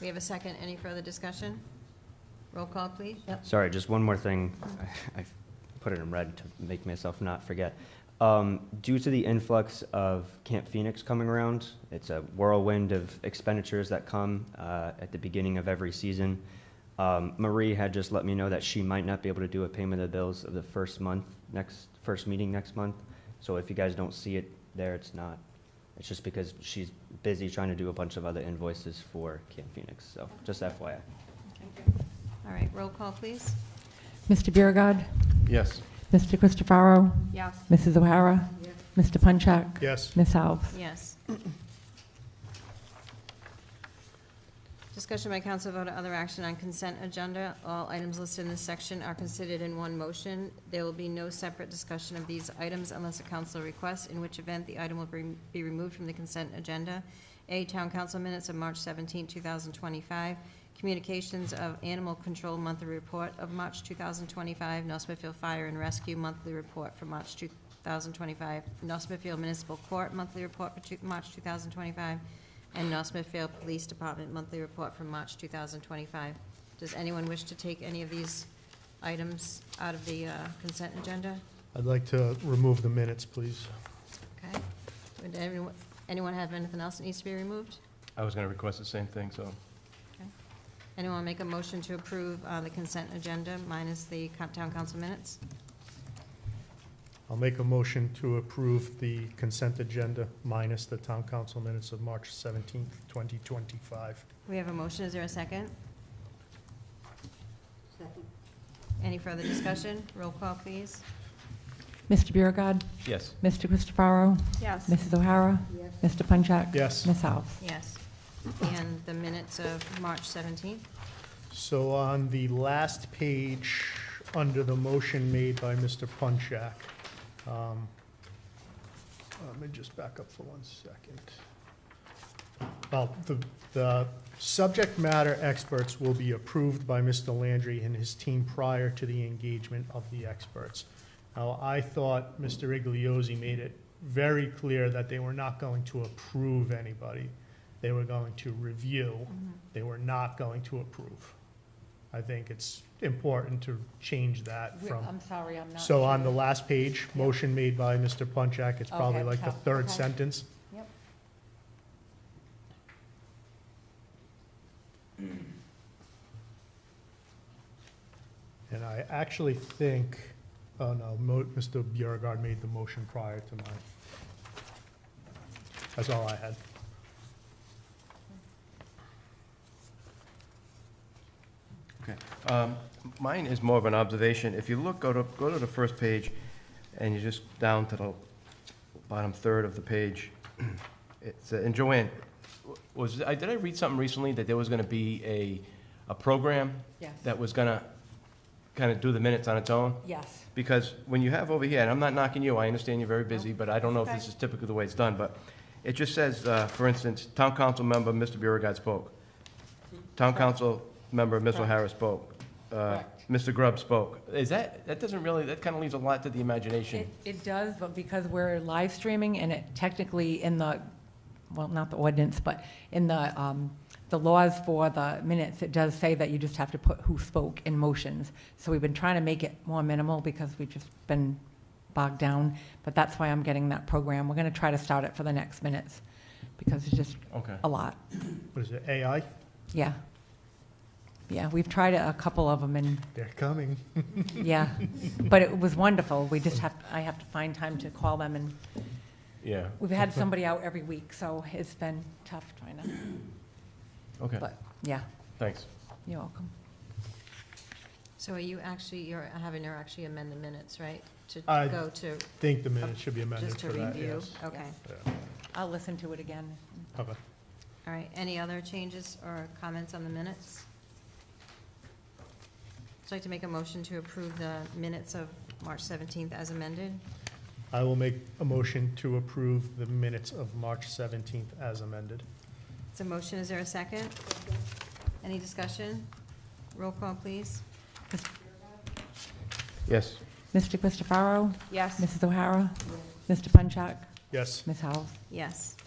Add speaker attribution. Speaker 1: We have a second. Any further discussion? Roll call, please.
Speaker 2: Yep.
Speaker 3: Sorry, just one more thing. I I put it in red to make myself not forget. Um, Due to the influx of Camp Phoenix coming around, it's a whirlwind of expenditures that come uh, at the beginning of every season. Um, Marie had just let me know that she might not be able to do a payment of the bills of the first month, next, first meeting next month. So if you guys don't see it there, it's not, it's just because she's busy trying to do a bunch of other invoices for Camp Phoenix. So just FYI.
Speaker 1: All right, roll call, please.
Speaker 2: Mr. Biragad.
Speaker 4: Yes.
Speaker 2: Mr. Christopherow.
Speaker 1: Yes.
Speaker 2: Mrs. O'Hara. Mr. Punchak.
Speaker 4: Yes.
Speaker 2: Ms. Alves.
Speaker 1: Yes. Discussion by council vote or other action on consent agenda. All items listed in this section are considered in one motion. There will be no separate discussion of these items unless a council requests, in which event the item will be- be removed from the consent agenda. A, Town Council Minutes of March 17, 2025. Communications of Animal Control Monthly Report of March 2025. North Smithfield Fire and Rescue Monthly Report for March 2025. North Smithfield Municipal Court Monthly Report for two- March 2025. And North Smithfield Police Department Monthly Report for March 2025. Does anyone wish to take any of these items out of the uh, consent agenda?
Speaker 4: I'd like to remove the minutes, please.
Speaker 1: Okay. Would anyone- anyone have anything else that needs to be removed?
Speaker 5: I was going to request the same thing, so.
Speaker 1: Anyone make a motion to approve uh, the consent agenda minus the co- town council minutes?
Speaker 4: I'll make a motion to approve the consent agenda minus the town council minutes of March 17th, 2025.
Speaker 1: We have a motion, is there a second? Second. Any further discussion? Roll call, please.
Speaker 2: Mr. Biragad.
Speaker 5: Yes.
Speaker 2: Mr. Christopherow.
Speaker 1: Yes.
Speaker 2: Mrs. O'Hara. Mr. Punchak.
Speaker 4: Yes.
Speaker 2: Ms. Alves.
Speaker 1: Yes. And the minutes of March 17th?
Speaker 4: So on the last page, under the motion made by Mr. Punchak, um, let me just back up for one second. Well, the, the subject matter experts will be approved by Mr. Landry and his team prior to the engagement of the experts. Now, I thought Mr. Igliozzi made it very clear that they were not going to approve anybody. They were going to review they were not going to approve. I think it's important to change that from,
Speaker 2: sorry, I'm
Speaker 4: so on the last page, motion made by Mr. Punchak, it's probably
Speaker 2: Okay,
Speaker 4: like the
Speaker 2: top-
Speaker 4: third
Speaker 2: okay.
Speaker 4: sentence.
Speaker 2: Yep.
Speaker 4: And I actually think, oh no, Mo, Mr. Beauregard made the motion prior to mine. That's all I had.
Speaker 5: Um, Mine is more of an observation. If you look, go to, go to the first page, and you just down to the bottom third of the page. It's, uh, and Joanne, w- was, I, did I read something recently that there was going to be a, a program
Speaker 2: Yes.
Speaker 5: that was going to kind of do the minutes on its own?
Speaker 2: Yes.
Speaker 5: Because when you have over here, and I'm not knocking you, I understand you're very busy, but I don't know if this
Speaker 1: Okay.
Speaker 5: is typically the way it's done, but it just says, uh, for instance, town council member, Mr. Biragad spoke. Town council member, Ms. O'Hara spoke. Uh,
Speaker 2: Correct.
Speaker 5: Mr. Grubb spoke. Is that, that doesn't really, that kind of leaves a lot to the imagination.
Speaker 2: It does, but because we're live streaming and it technically in the, well, not the ordinance, but in the, um, the laws for the minutes, it does say that you just have to put who spoke in motions. So we've been trying to make it more minimal because we've just been bogged down. But that's why I'm getting that program. We're going to try to start it for the next minutes because it's just
Speaker 5: Okay.
Speaker 2: a lot.
Speaker 4: What is it, AI?
Speaker 2: Yeah. Yeah, we've tried a couple of them and,
Speaker 4: They're coming.
Speaker 2: yeah. But it was wonderful. We just have, I have to find time to call them and
Speaker 5: Yeah,
Speaker 2: We've had somebody out every week, so it's been tough trying to,
Speaker 5: okay,
Speaker 2: but, yeah,
Speaker 5: thanks.
Speaker 2: you're welcome.
Speaker 1: So are you actually, you're having her actually amend the minutes, right? To
Speaker 4: I-
Speaker 1: go to,
Speaker 4: Think the minutes should be
Speaker 1: just
Speaker 4: amended
Speaker 1: to
Speaker 4: for that,
Speaker 1: review?
Speaker 4: yes.
Speaker 1: Okay.
Speaker 4: Yeah.
Speaker 2: I'll listen to it again.
Speaker 4: Okay.
Speaker 1: All right, any other changes or comments on the minutes? I'd like to make a motion to approve the minutes of March 17th as amended.
Speaker 4: I will make a motion to approve the minutes of March 17th as amended.
Speaker 1: It's a motion, is there a second? Any discussion? Roll call, please.
Speaker 5: Yes.
Speaker 2: Mr. Christopherow,
Speaker 1: Yes.
Speaker 2: Mrs. O'Hara, Mr. Punchak,
Speaker 4: Yes,
Speaker 2: Ms. House.
Speaker 1: Yes.